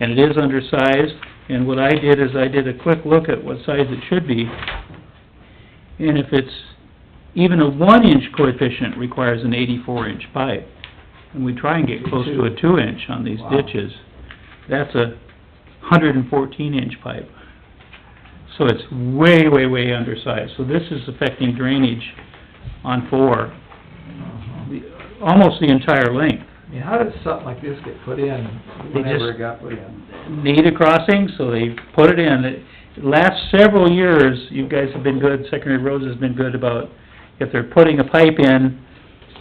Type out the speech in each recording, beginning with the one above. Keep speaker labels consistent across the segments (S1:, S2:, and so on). S1: and it is undersized, and what I did is I did a quick look at what size it should be, and if it's, even a one-inch coefficient requires an eighty-four inch pipe, and we try and get close to a two-inch on these
S2: Wow.
S1: ditches, that's a hundred and fourteen inch pipe. So it's way, way, way undersized, so this is affecting drainage on four,
S2: Uh-huh.
S1: the- almost the entire length.
S2: I mean, how did something like this get put in
S1: They
S2: whenever
S1: just-
S2: it got put in?
S1: need a crossing, so they put it in. It- Last several years, you guys have been good, Secondary Roads has been good about, if they're putting a pipe in,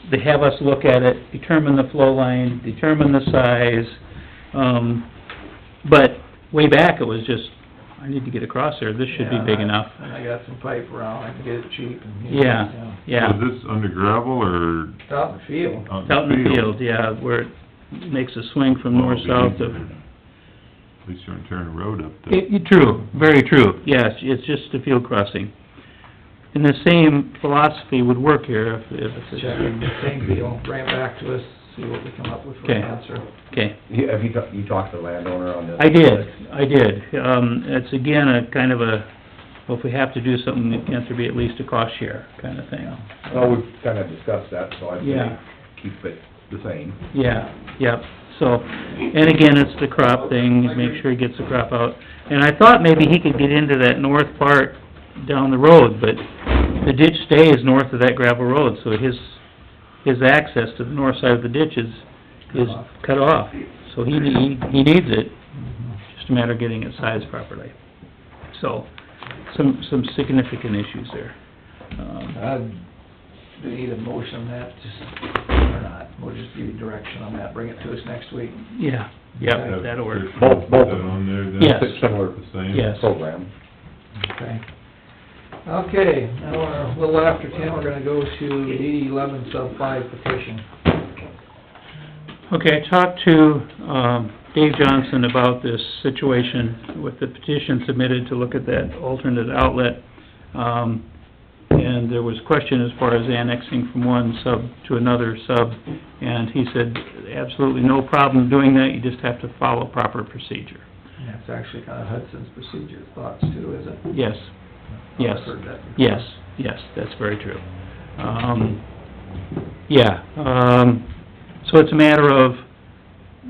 S1: they have us look at it, determine the flow line, determine the size. Um, but way back, it was just, I need to get across there, this should be
S2: Yeah,
S1: big enough.
S2: And I got some pipe around, I can get it cheap and...
S1: Yeah, yeah.
S3: Is this under gravel or
S2: uh, It's out in the field.
S3: out in the field? Oh,
S1: Out in the field, yeah, where it makes a swing from
S3: Well,
S1: north,
S3: it'd be
S1: south
S3: easier.
S1: of...
S3: At least you aren't tearing a road up there.
S1: It, it- true, very true, yes, it's just a field crossing. And the same philosophy would work here if, if
S2: Check
S1: it's,
S2: it, same deal, bring it back to us, see what we come up with for
S1: Okay.
S2: an answer.
S1: okay.
S4: You- Have you, talked- you talked to the landowner on this?
S1: I did, I did, um, it's again a kind of a, well, if we have to do something, it can't there be at least a cost share kind of thing?
S4: Well, we've kind of Oh, discussed that, so I
S1: Yeah.
S4: think keep it the same.
S1: Yeah, yep, so, and again, it's the crop thing, make sure he gets the crop out. And I thought maybe he could get into that north part down the road, but the ditch stays north of that gravel road, so his, his access to the north side of the ditch is, is cut off. So he, he he needs it, just a matter of getting it sized properly. So, some, some significant issues there. Um,
S2: Uh, do you need a motion on that, just, or not? We'll just give you direction on that, bring it to us next week.
S1: Yeah, yeah, that'll work,
S4: Both- both of them.
S3: On there, then?
S1: Yes.
S4: Similar
S3: The same?
S1: yes.
S4: program.
S2: Okay. Okay, now, we're a little after ten, we're gonna go to DD eleven sub five petition.
S1: Okay, I talked to, um, Dave Johnson about this situation with the petition submitted to look at that alternate outlet. Um, and there was question as far as annexing from one sub to another sub, and he said, absolutely no problem doing that, you just have to follow proper procedure.
S2: And That's actually kinda Hudson's procedure thoughts too, is it?
S1: Yes, Yes.
S2: I've heard that before.
S1: yes, yes, that's very true. Um, yeah, um, so it's a matter of,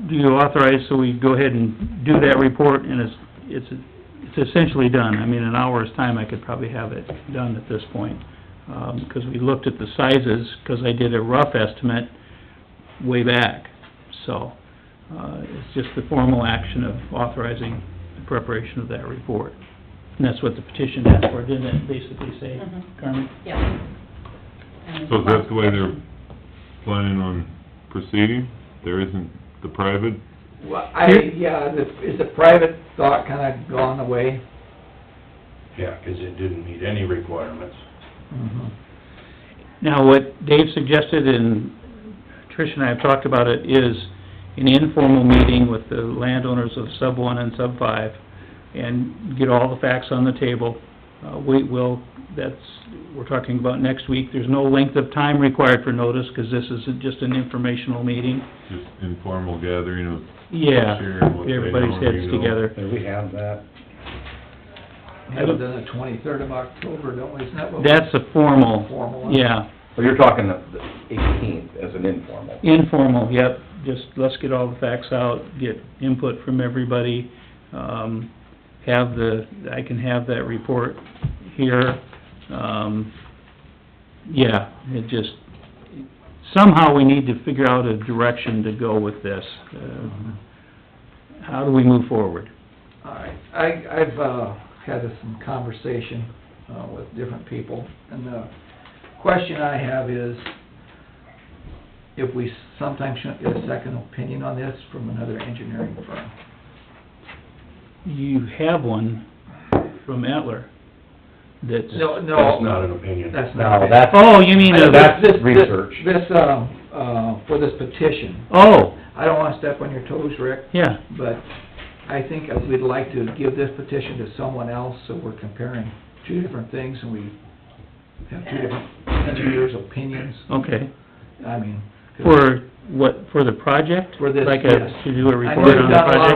S1: do you authorize, so we go ahead and do that report, and it's, it's, it's essentially done. I mean, in an hour's time, I could probably have it done at this point. Um, 'cause we looked at the sizes, 'cause I did a rough estimate way back. So, uh, it's just the formal action of authorizing the preparation of that report. And that's what the petition asked for, didn't it, basically say,
S5: Mhm.
S1: Carmen?
S5: Yep. And-
S3: So that's the way they're planning on proceeding? There isn't the private?
S2: Well, I, yeah, the, is the private thought kinda gone away?
S6: Yeah, 'cause it didn't meet any requirements.
S2: Mm-hmm.
S1: Now, what Dave suggested, and Trish and I have talked about it, is an informal meeting with the landowners of sub one and sub five, and get all the facts on the table. Uh, we will, that's, we're talking about next week, there's no length of time required for notice, 'cause this isn't just an informational meeting.
S3: Just informal gathering of,
S1: Yeah,
S3: Sharing what they
S1: everybody's
S3: know,
S1: heads
S3: you know.
S1: together.
S4: Have we had that?
S2: We have it done the twenty-third of October, don't we, isn't that what? we-
S1: That's a formal,
S2: Formal. one?
S1: yeah,
S4: Well, you're talking the the eighteenth as an informal.
S1: informal, yep, just let's get all the facts out, get input from everybody, um, have the, I can have that report here, um, yeah, it just, somehow we need to figure out a direction to go with this. Uh, How do we move forward?
S2: All right, I, I've, uh, had some conversation, uh, with different people, and the question I have is, if we sometimes shouldn't get a second opinion on this from another engineering firm.
S1: You have one from Etler that's...
S2: No, no.
S6: That's not an opinion.
S2: That's not.
S4: No,
S2: bad.
S4: that's,
S1: Oh, you mean,
S2: I-
S1: a-
S4: that's
S2: this- this-
S4: research.
S2: This, um, uh, for this petition,
S1: oh,
S2: I don't wanna step on your toes, Rick,
S1: yeah,
S2: but I think I would like to give this petition to someone else, so we're comparing two different things, and we have two different engineers' opinions,
S1: okay.
S2: I mean. 'cause-
S1: For what, for the project?
S2: For this,
S1: Like
S2: yes.
S1: a, to do a
S2: I know
S1: report
S2: you've
S1: on the
S2: done a lot
S1: project?